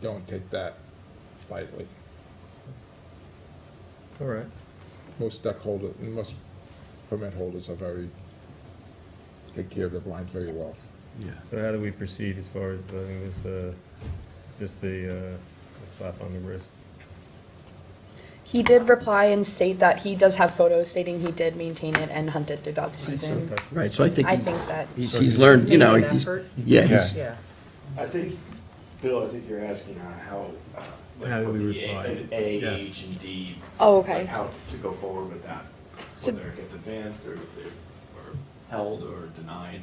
don't take that lightly. All right. Most duck holder, most permit holders are very, take care of their blinds very well. Yeah. So how do we proceed as far as the, I think this, uh, just the, uh, the slap on the wrist? He did reply and state that he does have photos stating he did maintain it and hunt it throughout the season. Okay. Right, so I think I he's, think that, he's- he's learned, you know, Made an he's, effort. yeah, he's, Yeah. Yeah. I think, Bill, I think you're asking on how, uh, How do like, with we the reply? A, Yes. A, H, and D. oh, Like okay. how to go forward with that, So- whether it gets advanced or, or held or denied.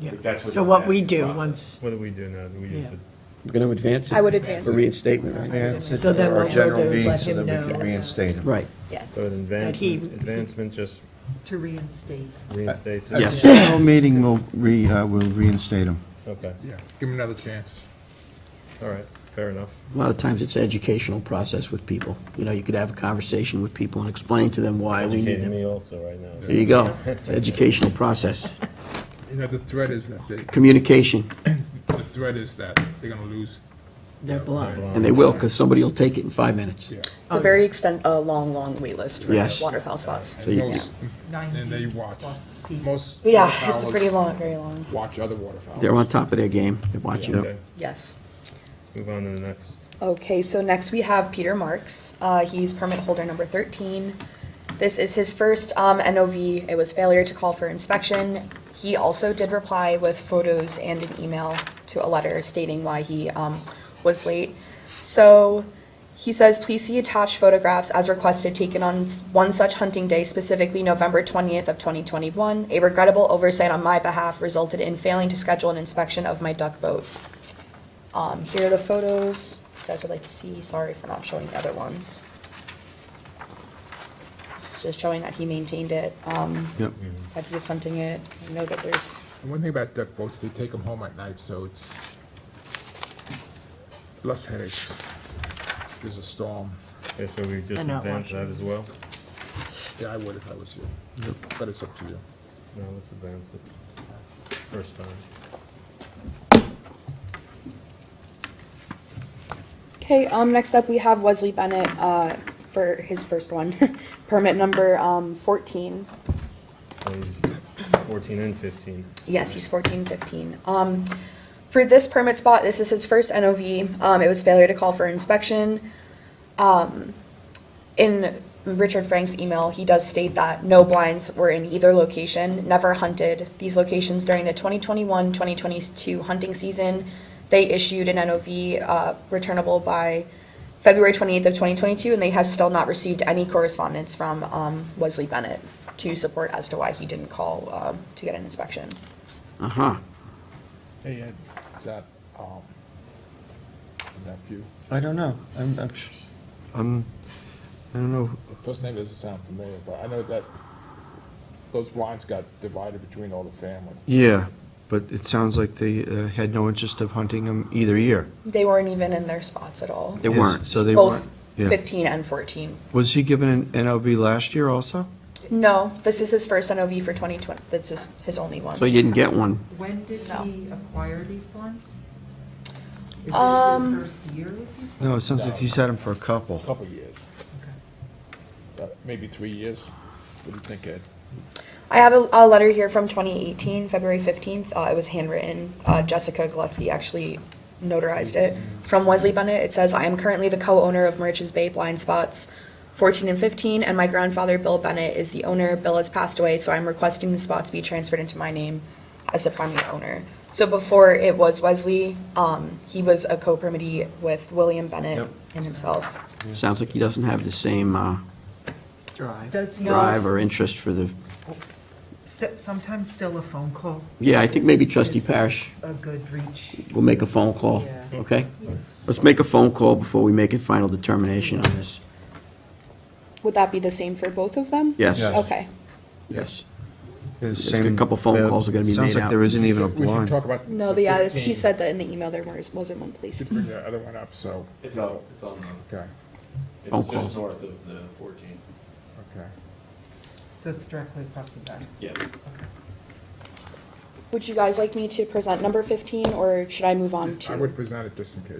I think that's what So he's what we asking do process. once, What do we do now? Do we just Yeah. we're gonna advance it. I would advance For it. reinstatement, right? Advance it So then to our what we'll general do is meeting let so him that we know. can reinstate him. Right, Yes. so an he- advancement, advancement just to reinstate. reinstates it? Yes. At the general meeting, we'll re, uh, we'll reinstate him. Okay, Yeah, give him another chance. all right, fair enough. a lot of times it's an educational process with people. You know, you could have a conversation with people and explain to them why we need Educating them. me also right now. There you go, it's an educational process. You know, the threat is that, they- Communication, the threat is that they're gonna lose, They're blind. and they will, because somebody will take it in five minutes. yeah. It's a very extent, a long, long waitlist Yes. for waterfowl spots. So you- Most- And they 90 watch, plus feet. most. Yeah, it's a waterfowlers pretty long, very long, Watch other waterfowl. They're on top of their game, they're watching Okay, it. yes. move on to the next. Okay, so next we have Peter Marks. Uh, he's permit holder number thirteen. This is his first, um, NOV. It was failure to call for inspection. He also did reply with photos and an email to a letter stating why he, um, was late. So he says, please see attached photographs as requested taken on s- one such hunting day, specifically November twentieth of twenty twenty-one. A regrettable oversight on my behalf resulted in failing to schedule an inspection of my duck boat. Um, here are the photos, if you guys would like to see, sorry for not showing the other ones. It's Just showing that he maintained it, um, Yep. that he was hunting it, I know that there's, And one thing about duck boats, they take them home at night, so it's less headaches. There's a storm. Okay, so we just And not advance that watching. as well? Yeah, I would if I was you, but it's up to you. No, let's advance it. First time. Okay, um, next up, we have Wesley Bennett, uh, for his first one, permit number, um, fourteen. So he's Fourteen and fifteen. Yes, he's fourteen, fifteen. Um, for this permit spot, this is his first NOV, um, it was failure to call for inspection. Um, in Richard Frank's email, he does state that no blinds were in either location, never hunted these locations during the 2021-2022 hunting season. They issued an NOV, uh, returnable by February twenty-eighth of twenty twenty-two, and they have still not received any correspondence from, um, Wesley Bennett to support as to why he didn't call, um, to get an inspection. Uh-huh, Hey, Ed, is that, um, a nephew? I don't know. I'm, I'm, I'm, Um, I don't know. The first name doesn't sound familiar, but I know that those blinds got divided between all the family. Yeah, but it sounds like they uh, had no interest of hunting him either year. They weren't even in their spots at all. they weren't. So they Both weren't. Yeah. fifteen and fourteen. Was he given an NOV last year also? No, this is his first NOV for twenty twenty, that's his, his only one. So you didn't get one. When did No. he acquire these blinds? Is Um, this his first year with these? No, it sounds like he's had him for a couple. A couple of years, uh, maybe three years. What do you think, Ed? I have a, a letter here from twenty eighteen, February fifteenth, uh, it was handwritten, uh, Jessica Gillespie actually notarized it. From Wesley Bennett, it says, I am currently the co-owner of Merch's Bay Blind Spots fourteen and fifteen, and my grandfather Bill Bennett is the owner, Bill has passed away, so I'm requesting the spots be transferred into my name as the primary owner. So before it was Wesley, um, he was a co-permittee with William Bennett Yep. and himself. Sounds like he doesn't have the same uh, Drive. Does he, drive or interest for the, st- sometimes still a phone call? yeah, I think maybe is- trustee is Parish A good reach. will make a phone call, Yeah. okay? Let's make a phone call before we make a final determination on this. Would that be the same for both of them? Yes. Yeah. Okay. Yes. The There's a same- couple phone uh, calls are gonna be Sounds made like out. there isn't even a We should blind. talk about. No, the, uh, he 15. said that in the email there was, wasn't one place. Should bring the other one up, so, It's on, it's on, the- okay, Phone it's calls. just north of the fourteen, okay. So it's directly across the back. yeah. Would you guys like me to present number fifteen, or should I move on to? I would present it just in case.